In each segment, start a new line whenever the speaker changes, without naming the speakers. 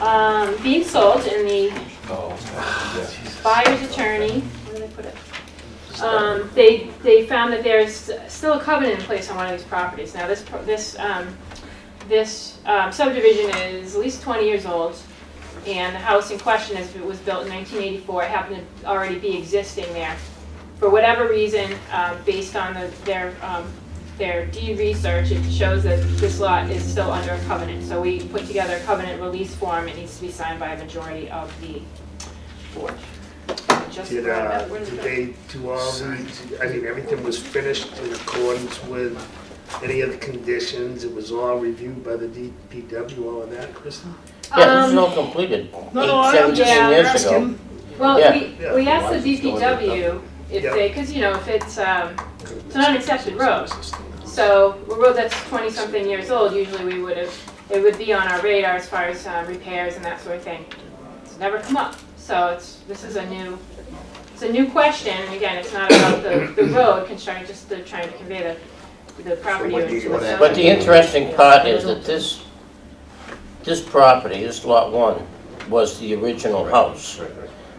um, being sold in the
Oh,
buyer's attorney, where did I put it? Um, they, they found that there's still a covenant in place on one of these properties. Now, this, pro- this, um, this um, subdivision is at least twenty years old, and the house in question is, it was built in nineteen eighty-four, It happened to already be existing there. For whatever reason, um, based on the- their, um, their deed research, it shows that this lot is still under a covenant. So we put together a covenant release form, it needs to be signed by a majority of the board. Just
Did,
grab
uh,
it. Where's
did
the-
they do all the, I mean, everything was finished in accordance with any of the conditions? It was all reviewed by the DPW, all of that, Kristen?
Yeah, it's
Um,
not completed.
No,
Eight,
no, I'm
seventeen
just
yeah,
years ago.
asking.
Well,
Yeah.
we,
Yeah.
we asked
Lots
the
of storage and
DPW if
Yeah.
they, because, you know, if it's, um, it's not an accepted road. So, a road that's twenty-something years old, usually we would have, it would be on our radar as far as uh, repairs and that sort of thing. It's never come up, so it's, this is a new, it's a new question, and again, it's not about the, the road construction, just they're trying to convey the, the property.
what do
owners
you
to the
want?
zone.
But the interesting part is that this, this property, this lot one, was the original house.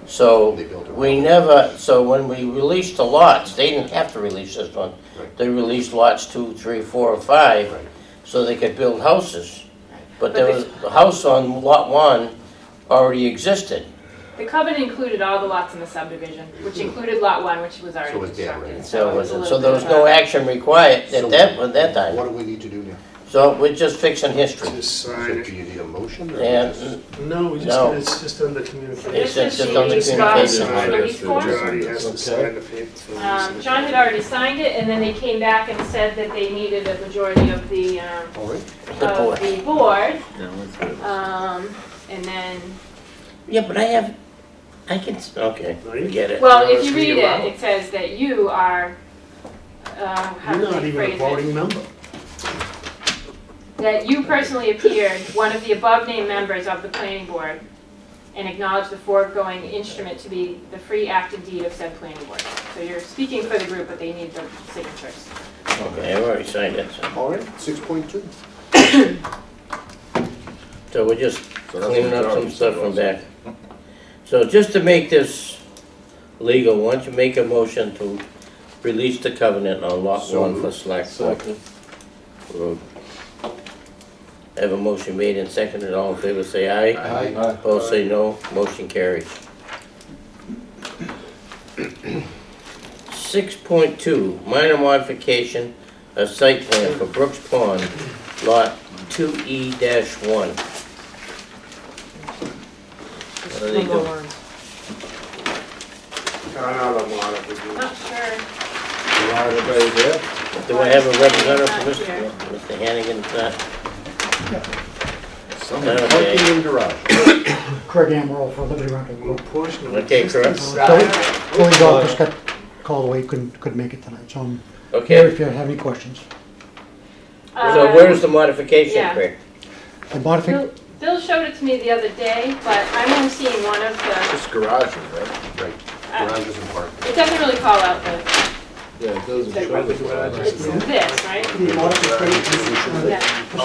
So
They built it.
we never, so when we released the lots, they didn't have to release this one.
Right.
They released lots two, three, four, and five,
Right.
so they could build houses. But there
But
was, the house on lot one already existed.
The covenant included all the lots in the subdivision, which included lot one, which was already
So it was dead, right?
constructed,
So,
so
it
it was a
wasn't-
little
so
bit
there was
of
no
a-
action required at that, at that
What
time.
do we need to do now?
So we're just fixing history.
Just
So
sign
Do
it.
you need a motion or just?
And
No, we just,
No.
it's just under communication.
This
It's
is
just on the
the
communication.
Robert's release form.
Majority has to sign the paper.
Um, John had already signed it, and then they came back and said that they needed a majority of the, um,
All right.
The board.
of the board. Um, and then,
Yeah, but I have, I can, s- okay, get it.
well, if you read
Let's read it out.
it, it says that you are, uh, how
You're
do
not
they
even a
phrase it?
voting member.
That you personally appeared, one of the above-named members of the planning board, and acknowledged the foregoing instrument to be the free act and deed of said planning board. So you're speaking for the group, but they need the signatures.
Okay, I've already signed it, so-
All right, six point two.
so we're just
So that's
cleaning up some
majority,
stuff
so
from
that's-
back. So just to make this legal, why don't you make a motion to release the covenant on lot
So
one
moved.
for Slack Road? I Have a motion made and seconded, all in favor say aye.
Aye.
Opposed say no, motion carries. Six point two, minor modification of site plan for Brooks Pond, lot two E one. What do they do?
Another one if we do.
I'm not sure.
Everybody there?
Do I have a representative
Not
for Mr.
here.
Mr. Hannigan? Uh,
Some
Okay.
parking in garage.
Craig Amaral for Liberty Rental
Well,
Group.
portion of
Okay,
existing
correct.
side-
Tony Dawkins got called away, couldn't, couldn't make it tonight, so I'm here
Okay,
if you have any questions.
so
Uh,
where's the modification,
yeah.
Craig?
The modification,
Uh, Bill- Bill showed it to me the other day, but I'm only seeing one of the,
It's garage, right?
Right,
uh,
garages and parking.
it doesn't really call out the,
Yeah, it doesn't
Check
show
with
the
the
garage.
it's this, right?
the modification, uh,
Yeah,
this is the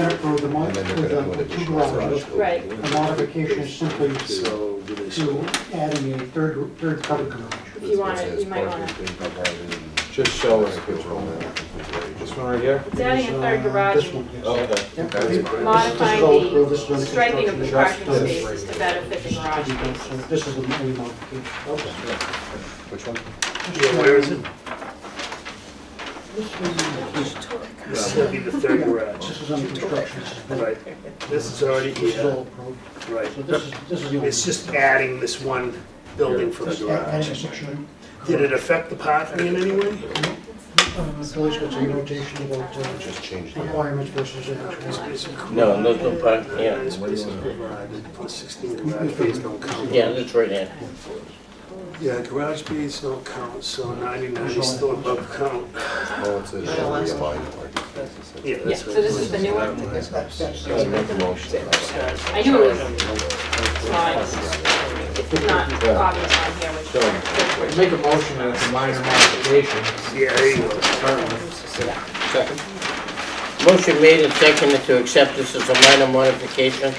third row, the
And
mod,
then they're
with
gonna do
the
an
two
additional garage.
garages.
right.
The modification is simply to
So, do they show?
adding a third, third covered garage.
If you want it, you might want it.
it.
Just show us. This one right here?
It's adding a third garage,
uh, This one, yes.
Oh, Okay.
Yep.
That's
This
fine.
is
modifying
all-
the
this is all
striping of the
construction.
parking spaces to better fit the garage
So
spaces.
This is the only modification.
Which one?
Yeah, where is it? This is
This
gonna be the third garage,
is under construction, this is built.
right? This is already
This is all
here,
approved.
right?
So this is, this is the only.
It's just adding this one building for the
Just add- adding a
garage.
section.
Did it affect the parking in any way?
Uh, so it's got a notation about uh,
Just change the.
requirements versus actual.
No, no, no, park, yeah.
This place is provided, put 16 garage bays don't count.
Yeah, that's right there.
Yeah, garage bays don't count, so 99 is still above count.
Oh, it's a.
Yeah, last one.
Yeah,
Yeah, that's
so
right.
this is the new one.
Let's make the motion.
I knew it was small, it's- it's not obvious on here, which.
Make a motion that it's a minor modification.
Yeah, there you go.
Second.
Motion made and seconded to accept this as a minor modification